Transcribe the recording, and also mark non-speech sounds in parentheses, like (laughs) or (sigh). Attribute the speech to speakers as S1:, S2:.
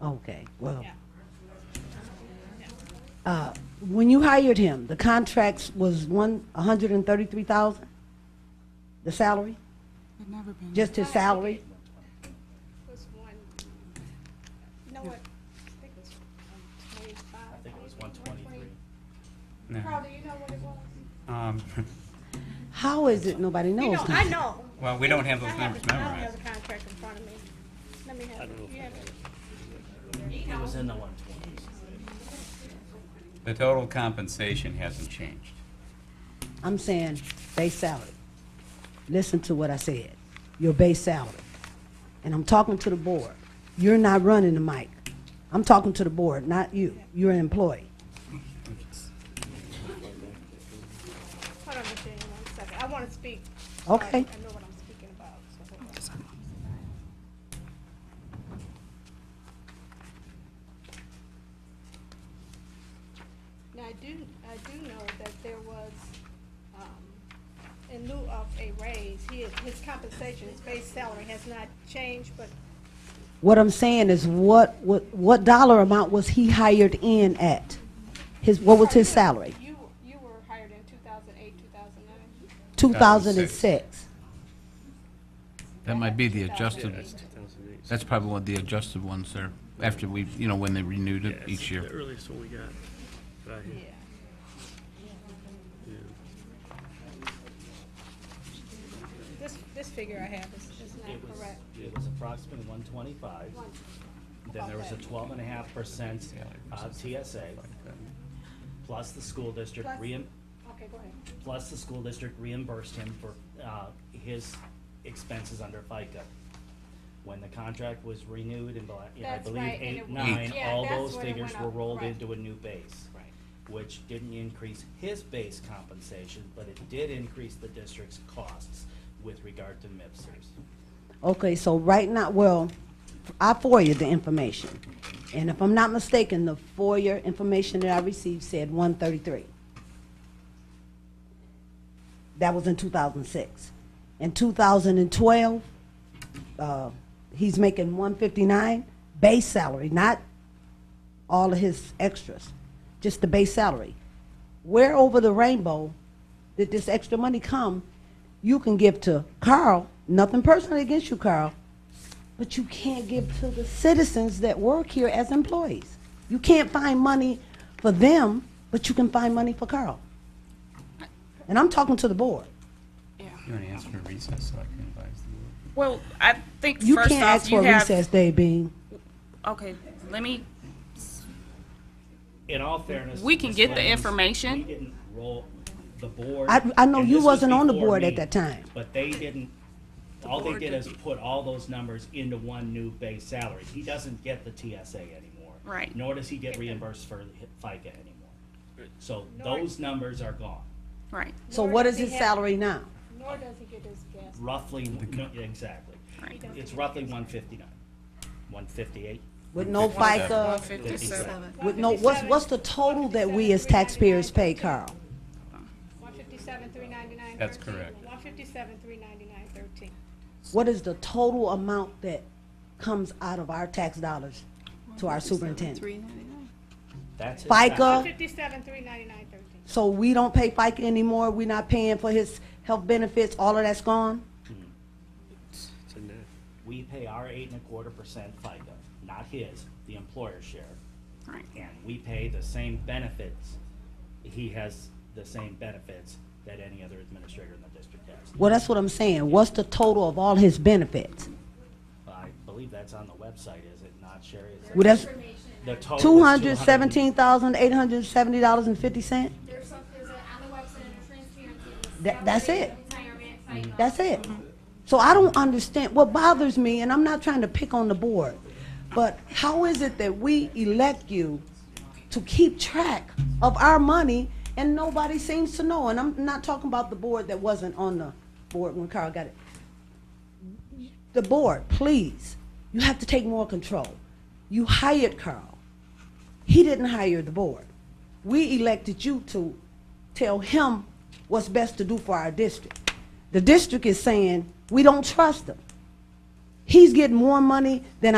S1: Okay, well. Uh, When you hired him, the contract was one, a hundred and thirty-three thousand? The salary?
S2: It never been.
S1: Just his salary?
S3: was one, no, it- I think it was um, twenty-five. I think it was one twenty-three.
S4: No.
S3: Carl, do you know what it was?
S4: Um, (laughs)
S1: How is it nobody knows?
S3: You know, I
S1: now?
S3: know.
S4: Well, we don't have those
S3: I have
S4: numbers
S3: the- I don't have
S4: memorized.
S3: the contract in front of me. Let me have, it. you have it.
S5: It was in the one twenties.
S4: The total compensation hasn't changed.
S1: I'm saying base salary. Listen to what I said. Your base salary. And I'm talking to the board. You're not running the mic. I'm talking to the board, not you. You're an employee.
S3: Hold on, Miss Daniel, one second. I want to speak. so I-
S1: Okay.
S3: I know what I'm speaking about, so hold on. Now, I do, I do know that there was, um, in lieu of a raise, he, his compensation, his base salary has not changed, but
S1: What I'm saying is what, what, what dollar amount was he hired in at? His, what was his salary?
S3: You, you were hired in two thousand eight, two thousand nine?
S1: 2006.
S6: That might be the adjusted, that's probably one of the adjusted ones there, after we, you know, when they renewed it each
S7: The
S6: year.
S7: earliest one we got. Right here.
S3: Yeah. This, this figure I have is, is
S5: It
S3: not
S5: was,
S3: correct.
S5: it was approximately one twenty-five.
S3: One-
S5: Then there was a
S3: Okay.
S5: twelve and a half percent uh, TSA, plus the school district
S3: Plus-
S5: reim,
S3: Okay, go ahead.
S5: plus the school district reimbursed him for uh, his expenses under FICA. When the contract was renewed in, bla- in, I
S3: That's
S5: believe,
S3: right, and
S5: eight,
S3: it-
S5: nine,
S3: Yeah,
S5: all
S3: that's
S5: those
S3: when it
S5: figures
S3: went
S5: were
S3: up,
S5: rolled
S3: right.
S5: into a new base.
S3: Right.
S5: Which didn't increase his base compensation, but it did increase the district's costs with regard to MIPSers.
S1: Okay, so right now, well, I FOIA the information. And if I'm not mistaken, the FOIA information that I received said 133. That was in 2006. In 2012, uh, he's making 159 base salary, not all of his extras, just the base salary. Where over the rainbow did this extra money come? You can give to Carl, nothing personally against you, Carl, but you can't give to the citizens that work here as employees. You can't find money for them, but you can find money for Carl. And I'm talking to the board.
S4: You want to ask for a recess so I can advise the board?
S8: Well, I think
S1: You
S8: first
S1: can't
S8: off,
S1: ask
S8: you
S1: for a
S8: have.
S1: recess day, Bean.
S8: Okay, let me.
S5: in all fairness.
S8: We can get the
S5: Ms. Williams,
S8: information.
S5: We didn't roll the board.
S1: I- I know
S5: and
S1: you
S5: this was
S1: wasn't on the
S5: before
S1: board at
S5: me,
S1: that time.
S5: But they didn't, all they did is put all those numbers into one new base salary. He doesn't get the TSA anymore.
S8: Right.
S5: Nor does he get reimbursed for FICA anymore. So those numbers are gone.
S8: Right.
S1: So
S3: Nor
S1: what
S3: does
S1: is
S3: he
S1: his
S3: have-
S1: salary now?
S3: Nor does he get his gas.
S5: Roughly, no, exactly.
S8: Right.
S5: It's roughly one fifty-nine, one fifty-eight.
S1: With no FICA,
S8: 157.
S1: with no, what's, what's the total that we as taxpayers pay, Carl?
S3: One fifty-seven, three ninety-nine, thirteen.
S4: That's correct.
S3: One fifty-seven, three ninety-nine, thirteen.
S1: What is the total amount that comes out of our tax dollars to our superintendent?
S5: That's his
S1: FICA?
S5: salary.
S3: One fifty-seven, three ninety-nine, thirteen.
S1: So we don't pay FICA anymore, we're not paying for his health benefits, all of that's gone?
S7: It's in there.
S5: We pay our eight and a quarter percent FICA, not his, the employer share.
S8: Right.
S5: and we pay the same benefits. He has the same benefits that any other administrator in the district has.
S1: Well, that's what I'm saying, what's the total of all his benefits?
S5: I believe that's on the website, is it not, Sherry? Is
S1: Well,
S5: it-
S1: that's
S5: The total is
S1: two hundred seventeen
S5: 217
S1: thousand, eight hundred seventy dollars and fifty cent?
S9: There's some, there's a, on the website, a transparency. of
S1: That- that's
S9: salary,
S1: it.
S9: Retirement, cycle.
S1: That's it. So I don't understand, what bothers me, and I'm not trying to pick on the board, but how is it that we elect you to keep track of our money and nobody seems to know? And I'm not talking about the board that wasn't on the board when Carl got it. The board, please, you have to take more control. You hired Carl. He didn't hire the board. We elected you to tell him what's best to do for our district. The district is saying, we don't trust him. He's getting more money than